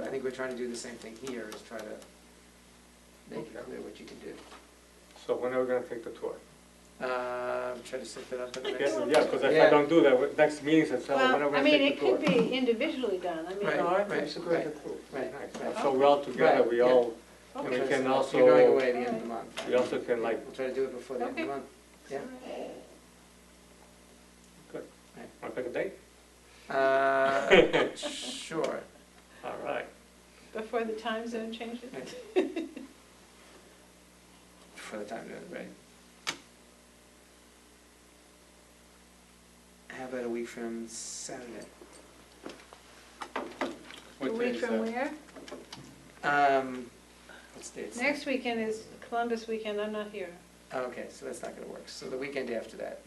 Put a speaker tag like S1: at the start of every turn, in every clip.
S1: I think we're trying to do the same thing here, is try to make it
S2: Okay.
S1: clear what you can do.
S2: So when are we gonna take the tour?
S1: Um, try to set that up at the
S2: Yeah,
S1: next.
S2: yeah, because if
S1: Yeah.
S2: I don't do that, what- next meeting says, so when are
S3: Well,
S2: we
S3: I
S2: gonna
S3: mean,
S2: take
S3: it
S2: the tour?
S3: could be individually done, I
S1: Right.
S3: mean,
S2: No, I think
S1: right,
S2: we should go to the
S1: right.
S2: tour.
S1: Right,
S2: Nice.
S1: right.
S2: So we're all together,
S1: Right,
S2: we
S1: yeah.
S2: all, and we
S3: okay.
S2: can
S1: You're going
S2: also,
S1: away at the end of the month.
S2: we also can like,
S1: We'll try to do it before the end of the
S3: Okay.
S1: month. Yeah.
S2: wanna pick a date?
S1: Uh, Sure.
S2: All right.
S3: Before the time zone changes?
S1: For the time, being, right? How about a week from Saturday?
S3: A
S2: What day
S3: week
S2: is
S3: from
S2: that?
S3: where?
S1: Um, what's the date?
S3: Next weekend is Columbus weekend, I'm not here,
S1: Okay, so that's not gonna work. So the weekend after that,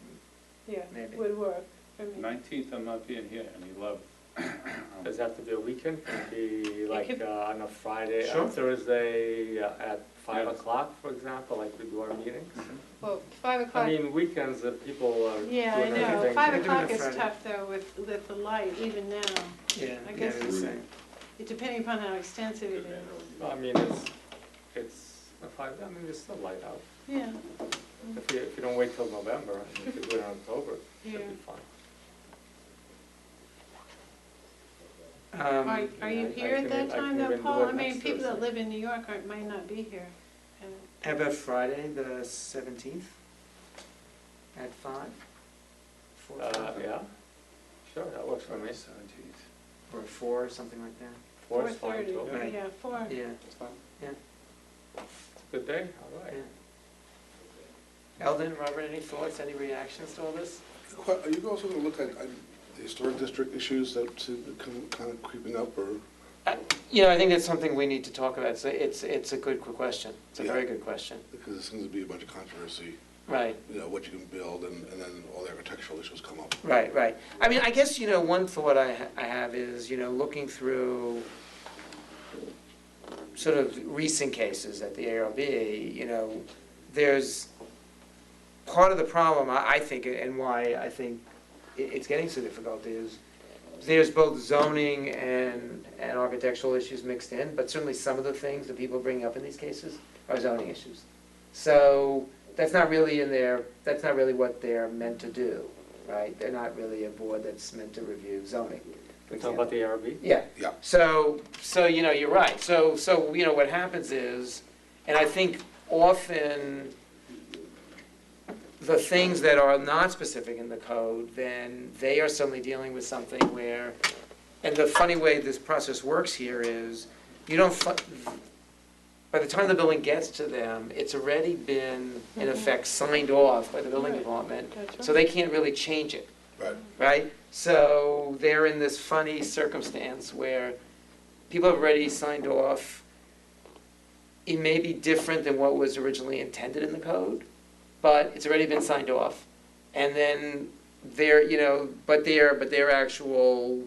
S3: yeah,
S1: Maybe.
S3: would work for me.
S4: Nineteenth, I'm not being here, and he loved.
S2: Does it have to be a weekend? Can it be like
S3: could-
S2: uh, on a Friday,
S1: Sure.
S2: on Thursday uh, at five
S4: Yeah.
S2: o'clock, for example, like we do our meetings?
S3: Well, five
S2: I
S3: o'clock,
S2: mean, weekends, uh, people are doing
S3: yeah, I know,
S2: everything.
S3: five
S1: We're doing it
S3: o'clock is
S1: Friday.
S3: tough though with, with the light, even now,
S1: yeah,
S3: I
S1: yeah,
S3: guess
S1: the
S4: it's-
S1: same.
S3: It- depending upon how extensive it is.
S2: I mean, it's, it's, a five, I mean, it's still light out.
S3: Yeah,
S2: If you, if you don't wait till November, and if you do it in October, it
S3: yeah.
S2: should be fine.
S1: Um,
S3: Are, are you
S2: I- I
S3: here at
S2: can-
S3: that
S2: I
S3: time
S2: can
S3: though,
S2: even do
S3: Paul?
S2: it
S3: I mean,
S2: next
S3: people that
S2: Thursday.
S3: live in New York aren't, might not be here. And
S1: How about Friday, the seventeenth? At five? Four,
S2: Uh,
S1: five,
S2: yeah, sure, that works for me.
S4: Seventeenth.
S1: or four, or something like that?
S2: Four is fine,
S3: 4:30,
S2: too.
S1: Right.
S3: Yeah, four.
S1: Yeah,
S2: It's fine.
S1: Yeah.
S2: It's a good day, all right.
S1: yeah. Eldon, Robert, any thoughts, any reactions to all this?
S5: Well, Are you also going to look at um, the historic district issues that seem to come kind of creeping up, or?
S1: Uh, You know, I think that's something we need to talk about. It's, a- it's, it's a good question. It's a
S5: Yeah.
S1: very good question.
S5: Because there seems to be a bunch of controversy,
S1: Right,
S5: you know, what you can build, and and then all the architectural issues come up.
S1: right, right. I mean, I guess, you know, one thought I, ha- I have is, you know, looking through sort of recent cases at the ARB, you know, there's, part of the problem, I, I think, and why I think it, it's getting so difficult is, there's both zoning and, and architectural issues mixed in, but certainly some of the things that people bring up in these cases are zoning issues. So, that's not really in their, that's not really what they're meant to do, right? They're not really a board that's meant to review zoning. for
S2: We're talking about
S1: example.
S2: the ARB?
S1: Yeah.
S5: Yeah.
S1: So, so, you know, you're right. So, so, you know, what happens is, and I think often the things that are not specific in the code, then they are suddenly dealing with something where, and the funny way this process works here is, you don't, fu- by the time the building gets to them, it's already been, in
S3: Mhm.
S1: effect, signed off by the building
S3: Right.
S1: department,
S3: That's
S1: so
S3: right.
S1: they can't really change it
S5: Right.
S1: right? So they're in this funny circumstance where people have already signed off. It may be different than what was originally intended in the code, but it's already been signed off. And then their, you know, but their, but their actual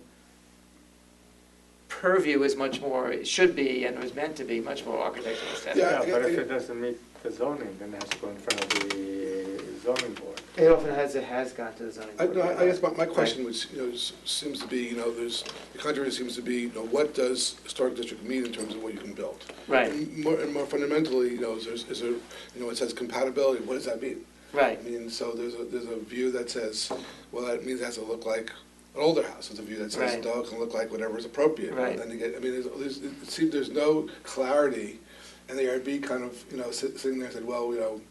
S1: purview is much more, it should be and was meant to be much more architectural aesthetic.
S5: Yeah,
S2: Yeah,
S5: I get-
S2: but
S5: I
S2: if
S5: get-
S2: it doesn't meet the zoning, then it has to go in front of the zoning board.
S1: It often has, it has gone to the zoning
S5: I
S1: board.
S5: no, I- I guess my my question was, you know, s- seems to be, you know, there's, the controversy seems to be, you know, what does historic district mean in terms of what you can build?
S1: Right,
S5: And more and more fundamentally, you know, is there- is there, you know, it says compatibility, what does that mean?
S1: right.
S5: I mean, so there's a, there's a view that says, well, that means it has to look like an older house. There's a view that says,
S1: Right.
S5: no, it can look like whatever is appropriate.
S1: Right.
S5: And you get, I mean, there's, there's, it seems there's no clarity, and the ARB kind of, you know, sit- sitting there and said, well, you know,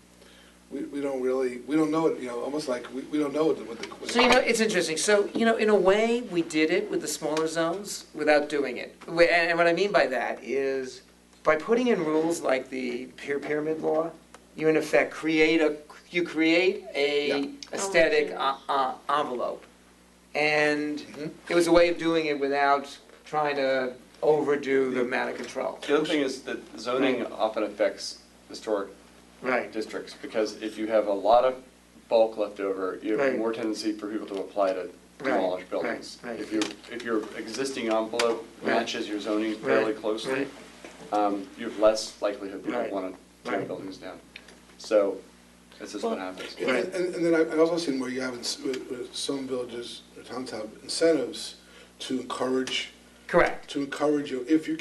S5: we, we don't really, we don't know it, you know, almost like, we, we don't know what the, what the. what
S1: So, you know, it's interesting, so, you know, in a way, we did it with the smaller zones without doing it. Wh- And and what I mean by that is, by putting in rules like the peer pyramid law, you in effect create a, you create
S5: Yeah.
S1: a aesthetic
S3: Oh,
S1: uh, uh, envelope. And
S5: Mhm.
S1: it was a way of doing it without trying to overdo the amount of control.
S6: The other thing is that zoning often affects historic
S1: Right,
S6: districts, because if you have a lot of bulk left over, you have
S1: Right.
S6: more tendency for people to apply to
S1: Right,
S6: demolish buildings.
S1: right, right.
S6: If your, if your existing envelope
S1: Right.
S6: matches your zoning fairly
S1: Right,
S6: closely,
S1: right.
S6: um, you have less likelihood people
S1: Right,
S6: want to tear
S1: right.
S6: buildings down. So, that's just what happens.
S5: And, and and then I- I've also seen where you have, in s- where- where some villages, or towns have incentives to encourage,
S1: correct.
S5: to encourage you, if you